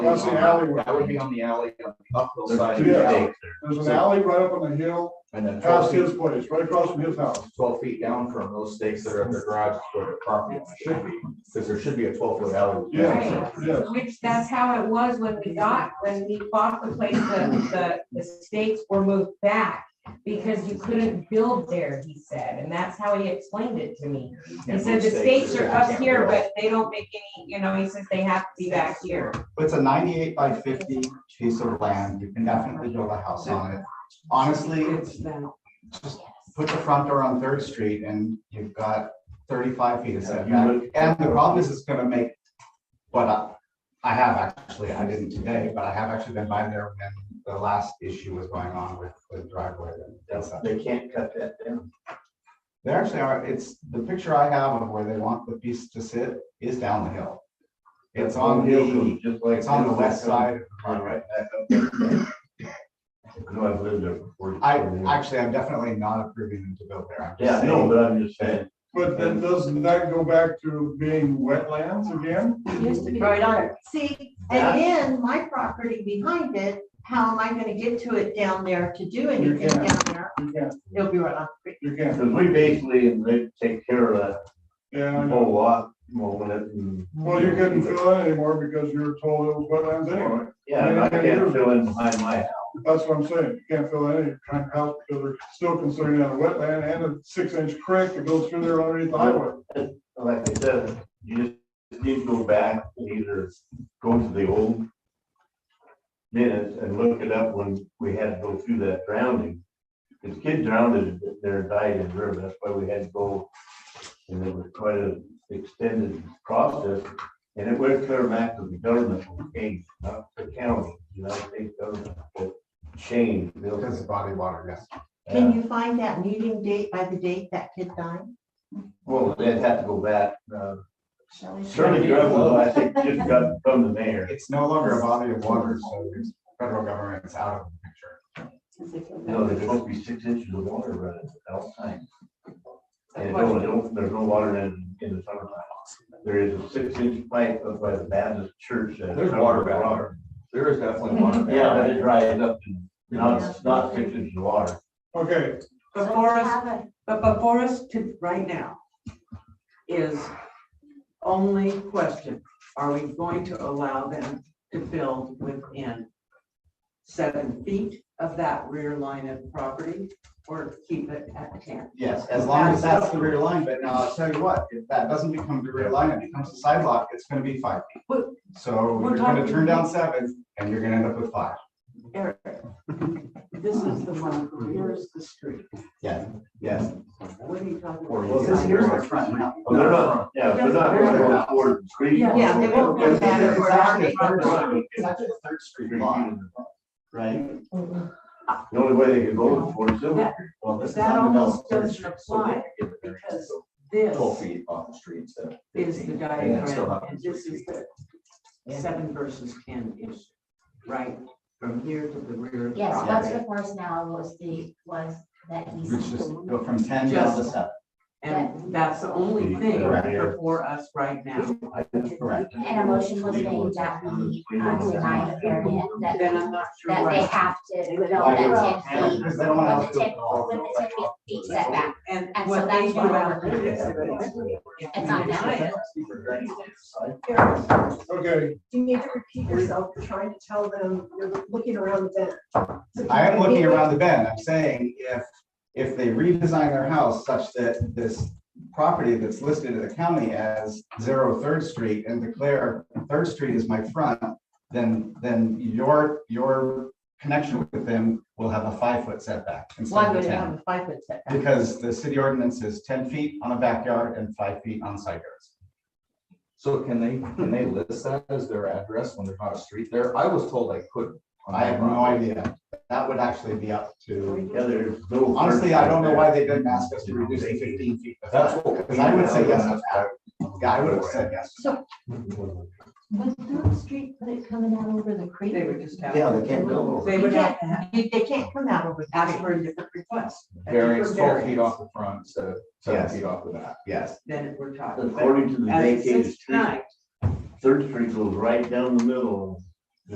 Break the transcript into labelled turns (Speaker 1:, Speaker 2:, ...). Speaker 1: that's the alleyway.
Speaker 2: That would be on the alley, on the uphill side. of
Speaker 1: Yeah.
Speaker 2: the alley,
Speaker 1: There's an alley right up on the hill,
Speaker 2: And then twelve
Speaker 1: past his
Speaker 2: feet,
Speaker 1: place, right across from his house.
Speaker 2: twelve feet down from those stakes that are in their garage is where their property line should be, because there should be a twelve foot alley.
Speaker 1: Yeah, yeah.
Speaker 3: Which that's how it was when we got, when we bought the place, the, the, the stakes were moved back. Because you couldn't build there, he said, and that's how he explained it to me.
Speaker 2: You can't
Speaker 3: He
Speaker 2: move
Speaker 3: said the stakes
Speaker 2: you
Speaker 3: are up
Speaker 2: can't
Speaker 3: here,
Speaker 2: build.
Speaker 3: but they don't make any, you know, he says they have to be back here.
Speaker 4: It's a ninety-eight by fifty piece of land. You can definitely build a house on it. Honestly, it's, just put the front door on Third Street and you've got thirty-five feet of setback. And the problem is it's gonna make, what I, I have actually, I didn't today, but I have actually been by there when the last issue was going on with the driveway. and
Speaker 2: That's-
Speaker 4: stuff.
Speaker 2: They can't cut that down.
Speaker 4: They actually are, it's, the picture I have of where they want the piece to sit is down the hill. It's on the,
Speaker 2: just
Speaker 4: it's on the west side of the
Speaker 2: On
Speaker 4: property.
Speaker 2: right back up there. I know I've lived there before.
Speaker 4: I, actually, I'm definitely not approving them to build there. I'm just
Speaker 2: Yeah, no,
Speaker 4: saying-
Speaker 2: but I'm just saying,
Speaker 1: But then doesn't that go back to being wetlands again?
Speaker 5: Used to be.
Speaker 6: Right on it.
Speaker 5: See,
Speaker 2: Yeah.
Speaker 5: and then my property behind it, how am I gonna get to it down there to do anything
Speaker 1: can't.
Speaker 5: down there?
Speaker 1: You can't,
Speaker 5: It'll be right on. the creek.
Speaker 1: you can't,
Speaker 7: Because we basically, and they take care of
Speaker 1: yeah, I
Speaker 7: that
Speaker 1: know.
Speaker 7: whole lot, mowing it and.
Speaker 1: Well, you couldn't fill in anymore because you were told it was wetlands anyway.
Speaker 7: Yeah, and I can't fill in behind my house.
Speaker 1: That's what I'm saying. You can't fill in any kind of house because they're still considering that a wetland and a six inch creek that goes through there underneath the highway.
Speaker 7: Like I said, you just need to go back and either go to the old minutes and look it up when we had to go through that drowning. This kid drowned there, died in the river, that's why we had to go. And it was quite an extended process, and it went clear back to the government, when it came, not the county, United States government, but Shane.
Speaker 4: Because of body of water, yes.
Speaker 5: Can you find that meeting date by the date that kid died?
Speaker 7: Well, they'd have to go back, uh,
Speaker 6: Shall we-
Speaker 7: Shirley Greville, I think, just got from the mayor.
Speaker 4: It's no longer a body of water, so the federal government's out of the picture.
Speaker 7: No, there's supposed to be six inches of water running at all times. And it don't- it don't- there's no water in, in the summertime. There is a six inch pipe up by the Baptist church. that-
Speaker 2: There's water back there. there is definitely one.
Speaker 7: Yeah, but it dries up and not, it's not six inches of water.
Speaker 1: Okay,
Speaker 6: Before us,
Speaker 5: Have a-
Speaker 6: but before us to right now is only question, are we going to allow them to build within seven feet of that rear line of property or keep it at ten?
Speaker 4: Yes, as long as that's the rear line, but now I'll tell you what, if that doesn't become the rear line, it becomes a sidewalk, it's gonna be five feet.
Speaker 6: But-
Speaker 4: So
Speaker 6: We're
Speaker 4: you're gonna
Speaker 6: talking-
Speaker 4: turn down seven and you're gonna end up with five.
Speaker 6: Eric, this is the one, here's the street.
Speaker 4: Yes, yes.
Speaker 6: What are you talking about?
Speaker 4: Well, this here's the front now.
Speaker 7: But they're not, yeah, they're not going to afford the street.
Speaker 6: Yeah.
Speaker 5: Yeah, they won't go
Speaker 4: It's
Speaker 5: back
Speaker 4: actually
Speaker 5: where our
Speaker 4: a third
Speaker 5: neighbor-
Speaker 4: street- it's actually a Third Street lot, right?
Speaker 7: The only way they could go for is.
Speaker 6: That-
Speaker 4: Well, this is
Speaker 6: That almost
Speaker 4: undeveloped Third
Speaker 6: doesn't apply because this
Speaker 2: Twelve feet off the street instead of
Speaker 6: is
Speaker 2: 15,
Speaker 6: the
Speaker 2: and then still
Speaker 6: diagram,
Speaker 2: have
Speaker 6: and
Speaker 2: three
Speaker 6: this
Speaker 2: feet.
Speaker 6: is the seven versus ten issue, right? From here to the rear of the
Speaker 8: Yes, what's
Speaker 6: property.
Speaker 8: before now was the, was that
Speaker 4: You
Speaker 8: he's.
Speaker 4: should just go from ten down to seven.
Speaker 6: And that's the only thing
Speaker 7: Right here.
Speaker 6: before us right now.
Speaker 4: Correct.
Speaker 8: And a motion was made that we uh, deny the variant, that,
Speaker 6: Then I'm not sure.
Speaker 8: that they
Speaker 6: why.
Speaker 8: have to build
Speaker 4: Right.
Speaker 8: that ten feet,
Speaker 4: Because they don't want
Speaker 8: with the
Speaker 4: to do
Speaker 8: ten,
Speaker 4: it all.
Speaker 8: with the ten feet setback.
Speaker 6: And
Speaker 8: And so
Speaker 6: what they
Speaker 8: that's
Speaker 6: do
Speaker 8: why we're
Speaker 6: out
Speaker 8: looking
Speaker 6: there is.
Speaker 8: at
Speaker 6: if
Speaker 8: It's
Speaker 6: we
Speaker 8: not
Speaker 6: deny it,
Speaker 1: okay,
Speaker 9: You need to repeat yourself, you're trying to tell them, you're looking around the bend.
Speaker 4: I am looking around the bend, I'm saying if, if they redesign their house such that this property that's listed in the county as zero Third Street and declare Third Street is my front, then, then your, your connection with them will have a five-foot setback
Speaker 5: Why
Speaker 4: instead
Speaker 5: would
Speaker 4: of
Speaker 5: it have
Speaker 4: ten.
Speaker 5: a five foot setback?
Speaker 4: Because the city ordinance is ten feet on a backyard and five feet on side yards.
Speaker 2: So can they, can they list that as their address when there's not a street there? I was told I couldn't. on
Speaker 4: I
Speaker 2: my
Speaker 4: have no
Speaker 2: property.
Speaker 4: idea, that would actually be up to,
Speaker 7: Yeah, there's no.
Speaker 4: honestly, I don't know why they didn't ask us to reduce it to fifteen feet.
Speaker 2: That's what.
Speaker 4: Because I would say yes to that. Yeah, I would have said yes.
Speaker 5: So was Third Street, put it coming out over the creek?
Speaker 6: They would just have.
Speaker 2: Yeah, they can't build over.
Speaker 6: They
Speaker 5: You
Speaker 6: would have to have-
Speaker 5: can't, you- they can't come out over. the
Speaker 6: ask
Speaker 5: creek.
Speaker 6: for a different request. a
Speaker 2: Variance
Speaker 6: different
Speaker 2: twelve feet
Speaker 6: variance
Speaker 2: off the front instead of seven
Speaker 4: Yes.
Speaker 2: feet off the back.
Speaker 4: Yes.
Speaker 6: Then we're talking.
Speaker 7: According to the
Speaker 6: As it
Speaker 7: vacated
Speaker 6: sits
Speaker 7: street,
Speaker 6: tonight,
Speaker 7: Third Street goes right down the middle